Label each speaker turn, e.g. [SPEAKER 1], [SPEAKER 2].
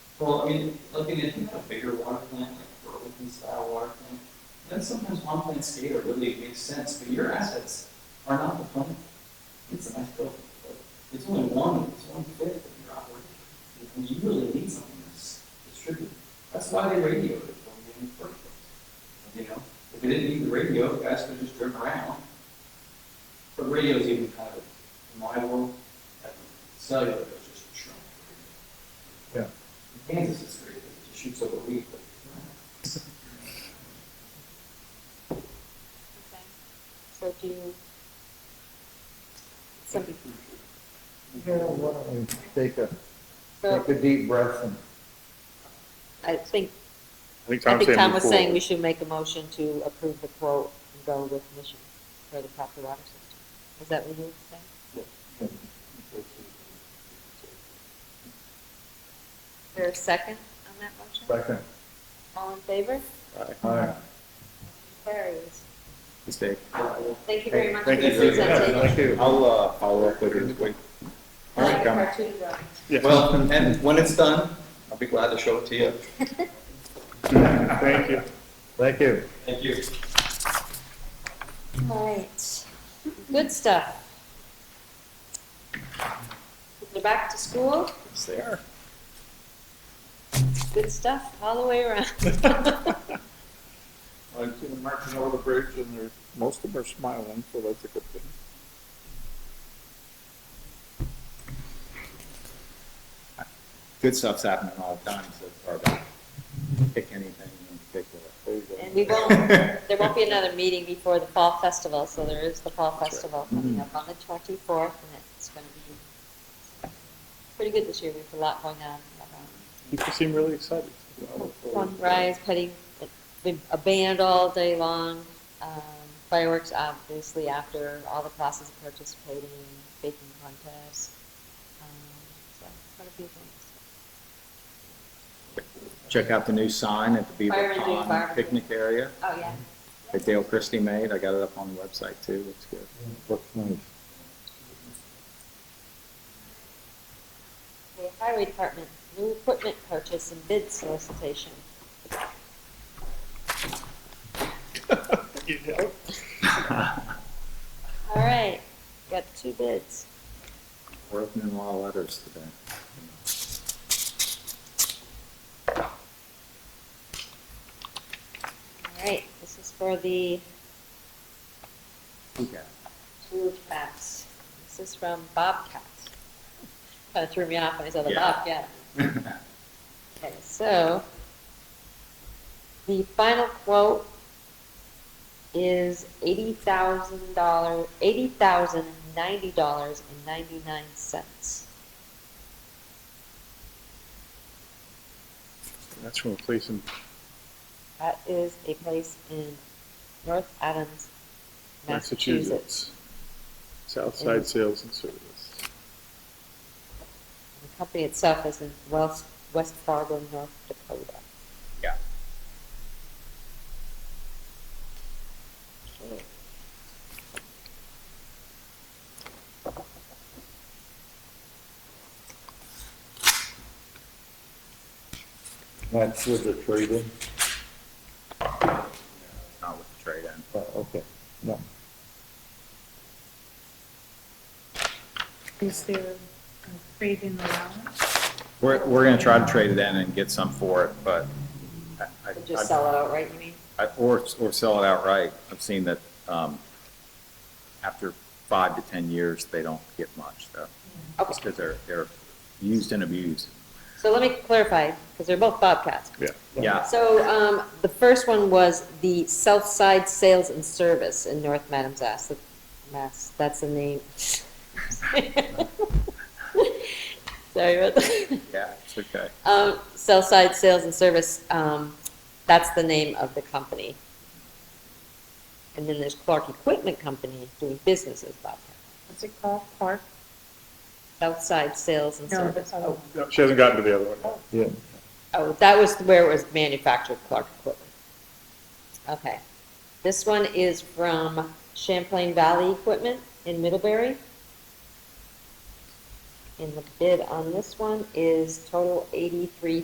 [SPEAKER 1] Well, I mean, looking at a bigger water plant, like Burlington style water plant, then sometimes one plant scale really makes sense, but your assets are not the plant. It's a nice building, but it's only one, it's one fifth of your operation. And you really need something that's distributed. That's why they radioed it when we didn't first. place. You know, if they didn't need the radio, guys could just drive around. But radio's even kind of, in my world, that cellular is just a shrunk.
[SPEAKER 2] Yeah.
[SPEAKER 1] In Kansas is great, it just shoots over a week, but.
[SPEAKER 3] Okay. So do you? So,
[SPEAKER 2] Yeah, why don't we take a,
[SPEAKER 3] so
[SPEAKER 2] take a deep breath and
[SPEAKER 3] I think,
[SPEAKER 4] I think
[SPEAKER 3] I
[SPEAKER 4] Tom
[SPEAKER 3] think
[SPEAKER 4] said
[SPEAKER 3] Tom was
[SPEAKER 4] before.
[SPEAKER 3] saying we should make a motion to approve the quote and go with Mission for the proper water system. Is that what you were saying? Is there a second on that motion?
[SPEAKER 2] second,
[SPEAKER 3] All in favor?
[SPEAKER 2] aye.
[SPEAKER 3] Carries.
[SPEAKER 4] Mistake.
[SPEAKER 3] Thank you very much for
[SPEAKER 4] Thank you.
[SPEAKER 3] your
[SPEAKER 1] for that.
[SPEAKER 3] presentation.
[SPEAKER 4] Thank you. I'll, uh, follow up with you. Wait.
[SPEAKER 3] All right,
[SPEAKER 4] Come.
[SPEAKER 3] cartoon drawing.
[SPEAKER 4] Yeah.
[SPEAKER 1] Well, and when it's done, I'll be glad to show it to you.
[SPEAKER 4] Thank you.
[SPEAKER 2] Thank you.
[SPEAKER 1] Thank you.
[SPEAKER 3] All right, good stuff. We're back to school,
[SPEAKER 4] Yes, they are.
[SPEAKER 3] good stuff all the way around.
[SPEAKER 4] I've seen them marching over the bridge and they're, most of them are smiling, so that's a good thing.
[SPEAKER 5] good stuff's happening all the time so far back. Pick anything in particular.
[SPEAKER 4] There you go.
[SPEAKER 3] And we won't, there won't be another meeting before the fall festival, so there is the fall festival coming up on the twenty-fourth, and it's gonna be pretty good this year, we have a lot going on.
[SPEAKER 4] People seem really excited.
[SPEAKER 3] Sunrise, petty, a band all day long, um, fireworks obviously after, all the classes are participating, baking contests. um, So, quite a few things.
[SPEAKER 5] Check out the new sign at the
[SPEAKER 3] Fire
[SPEAKER 5] Beaver
[SPEAKER 3] and Dune Bar.
[SPEAKER 5] Pond picnic area
[SPEAKER 3] Oh, yeah.
[SPEAKER 5] that Dale Christie made. I got it up on the website too. Looks good.
[SPEAKER 2] Looks nice.
[SPEAKER 3] The highway department, new equipment purchase and bid solicitation.
[SPEAKER 4] You know?
[SPEAKER 3] All right, got two bids.
[SPEAKER 5] We're opening a lot of letters today.
[SPEAKER 3] All right, this is for the
[SPEAKER 5] Okay.
[SPEAKER 3] two cats. This is from Bobcat. Kind of threw me off when I saw the
[SPEAKER 5] Yeah.
[SPEAKER 3] Bobcat. Okay, so the final quote is eighty thousand dollar, eighty thousand ninety dollars and ninety-nine cents.
[SPEAKER 4] That's from a place in,
[SPEAKER 3] That is a place in North Adams, Massachusetts.
[SPEAKER 4] Massachusetts. Southside Sales and Service.
[SPEAKER 3] The company itself is in West, West Fargo, North Dakota.
[SPEAKER 5] Yeah.
[SPEAKER 2] That's with the trade-in?
[SPEAKER 5] Not with the trade in.
[SPEAKER 2] Oh, okay, no.
[SPEAKER 6] Is there a trade-in allowance?
[SPEAKER 5] We're, we're going to try to trade it in and get some for it, but I, I,
[SPEAKER 3] Or Just sell it outright, you mean?
[SPEAKER 5] I- Or, or sell it outright. I've seen that um, after five to 10 years, they don't get much, though.
[SPEAKER 3] Okay.
[SPEAKER 5] Just because they're, they're used and abused.
[SPEAKER 3] So let me clarify, because they're both Bobcats.
[SPEAKER 4] Yeah.
[SPEAKER 5] Yeah,
[SPEAKER 3] So um, the first one was the Southside Sales and Service in North Madamsas, Mass, that's the name. Sorry about that.
[SPEAKER 5] yeah, it's okay.
[SPEAKER 3] Um, Southside Sales and Service, um, that's the name of the company. And then there's Clark Equipment Company doing business as Bobcat.
[SPEAKER 6] What's it called, Park?
[SPEAKER 3] Southside Sales and
[SPEAKER 6] No,
[SPEAKER 3] Service.
[SPEAKER 6] that's all.
[SPEAKER 4] No, She hasn't gotten to the other one. yet.
[SPEAKER 2] Yeah,
[SPEAKER 3] Oh, that was where it was manufactured, Clark Equipment. Okay. This one is from Champlain Valley Equipment in Middlebury. And the bid on this one is total eighty-three